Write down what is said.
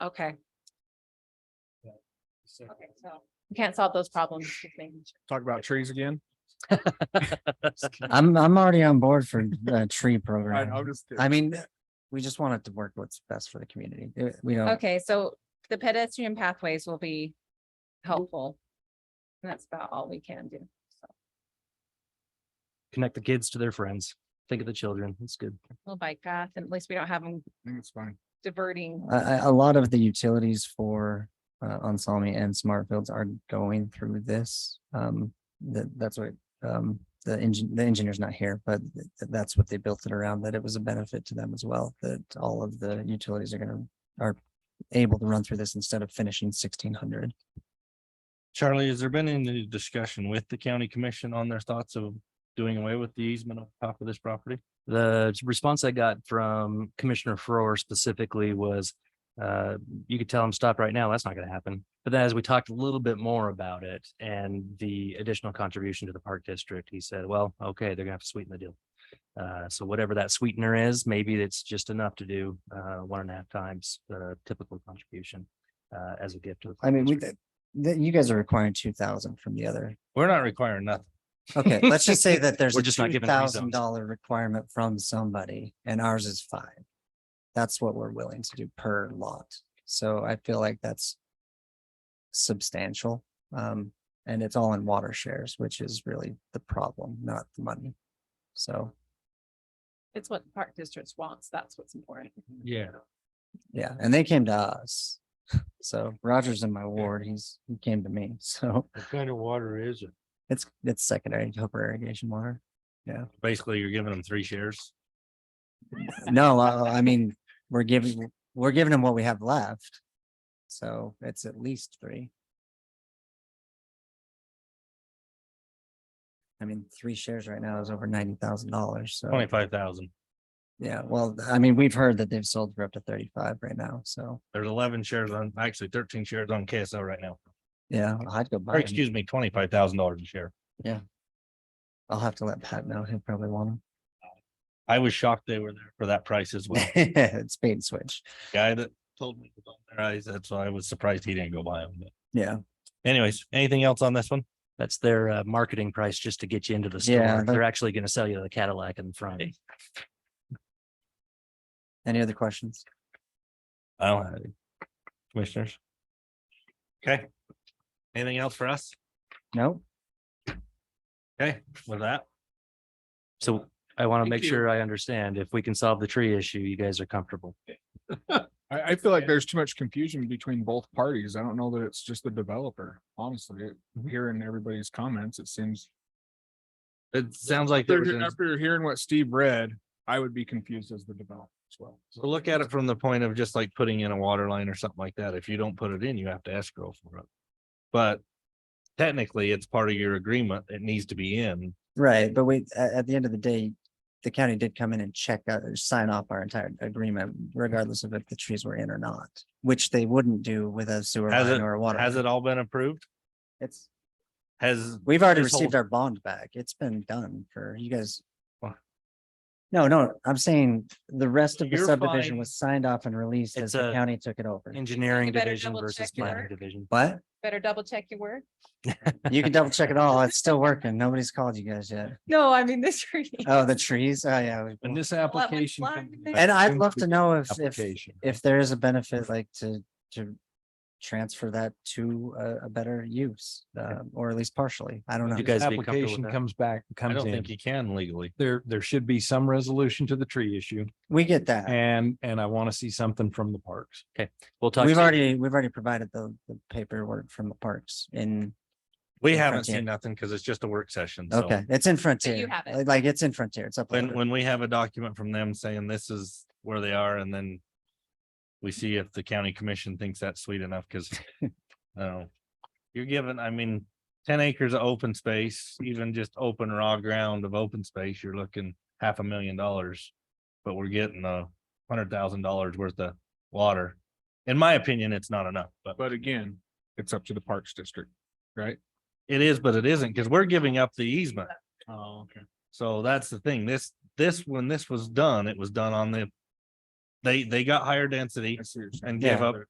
Okay, So- okay, so we can't solve those problems. just making sure. Talk about trees again. I'm, I'm already on board for the tree I, I'm program. just kidding. I mean, we just want it to work what's best for the community. Uh, We don't, Okay, so the pedestrian pathways will be helpful. And that's about all we can do. So Connect the kids to their friends. Think of the children. That's good. We'll bike path, and at least we don't have them I think it's fine. diverting. a, a, a lot of the utilities for uh, Onsami and Smartfields are going through this. Um, that, that's what, um, the engine, the engineer's not here, but th- that's what they built it around, that it was a benefit to them as well, that all of the utilities are gonna, are able to run through this instead of finishing sixteen hundred. Charlie, has there been any discussion with the county commission on their thoughts of doing away with the easement on top of this property? The response I got from Commissioner Frower specifically was, uh, you could tell him stop right now. That's not gonna happen. But then as we talked a little bit more about it and the additional contribution to the park district, he said, well, okay, they're gonna have to sweeten the deal. Uh, so whatever that sweetener is, maybe it's just enough to do, uh, one and a half times the typical contribution, uh, as a gift to the. I park mean, we, district. that, you guys are requiring two thousand from the other We're not requiring nothing. Okay, let's just say that there's We're a just not two given free thousand zones. dollar requirement from somebody and ours is five. That's what we're willing to do per lot. So I feel like that's substantial. Um, and it's all in water shares, which is really the problem, not the money. So, It's what the park districts wants. That's what's important. Yeah. yeah, and they came to us. So Roger's in my ward. He's, he came to me. So What kind of water is it? it's, it's secondary Hooper irrigation water. Basically, you're giving them three shares. No, uh, I mean, we're giving, we're giving them what we have left. So it's at least three. I mean, three shares right now is over ninety thousand dollars, so, Twenty-five thousand. yeah, well, I mean, we've heard that they've sold for up to thirty-five right now, so, There's eleven shares on, actually thirteen shares on KSL right now. yeah, I'd go buy. Or 'em. excuse me, twenty-five thousand dollars a share. I'll have to let Pat know, he'll probably want I was shocked they were there for that price as well. them. It's bait and switch, Guy that told me about their eyes, that's why I was surprised he didn't go buy them. But yeah, Anyways, anything else on this one? That's their uh, marketing price just to get you into the store. Yeah, They're actually gonna sell you the Cadillac in the front. any other questions? I don't have any. Commissioners? Okay. Anything else for us? No, Okay, with that, So I want to Thank make you. sure I understand if we can solve the tree issue, you guys are comfortable. I, I feel like there's too much confusion between both parties. I don't know that it's just the developer, honestly. It- Hearing everybody's comments, it seems. it sounds like there was After an- after hearing what Steve read, I would be confused as the developer as well. so look at it from the point of just like putting in a water line or something like that. If you don't put it in, you have to escrow for it. But technically, it's part of your agreement. It needs to be in. right, but wait, at, at the end of the day, the county did come in and check out, or sign off our entire agreement regardless of if the trees were in or not, which they wouldn't do with a sewer Has line it- or a water. Has line. it all been approved? It's, Has, we've already this whole- received our bond back. It's been done for you guys. Wha- No, no, I'm saying the rest of the You're subdivision fine. was signed off and released as It's the a- county took it over. Engineering You better division double versus check your planning work. division. What? Better double check your word. You can double check it all. It's still working. Nobody's called you guys yet. No, I mean this. tree. Oh, the trees. Oh, yeah. we- and this Well, that application. one can be line- And I'd love to know if, if, Application. if there is a benefit like to, to transfer that to a, a better use, uh, or at least partially. I don't know. You guys be comfortable with application that? comes back, I comes don't in, think you can legally. there, there should be some resolution to the tree issue We get that. and, and I want to see something from the parks. We'll talk. We've soon. already, we've already provided the, the paperwork from the parks in, We in haven't Frontier. seen nothing because it's just a work session. so. okay, it's in Frontier. have it. Like- Like, it's in Frontier, it's up. When, when we have a document from them saying this is where they are and then we see if the county commission thinks that's sweet enough, because oh, you're given, I mean, ten acres of open space, even just open raw ground of open space, you're looking half a million dollars. But we're getting a hundred thousand dollars worth of water. In my opinion, it's not enough, but But again, it's up to the Parks District, right? it is, but it isn't, because we're giving up the easement. Oh, okay. So that's the thing. This, this, when this was done, it was done on the. They, they got higher density I see what you're saying. and gave Yeah. up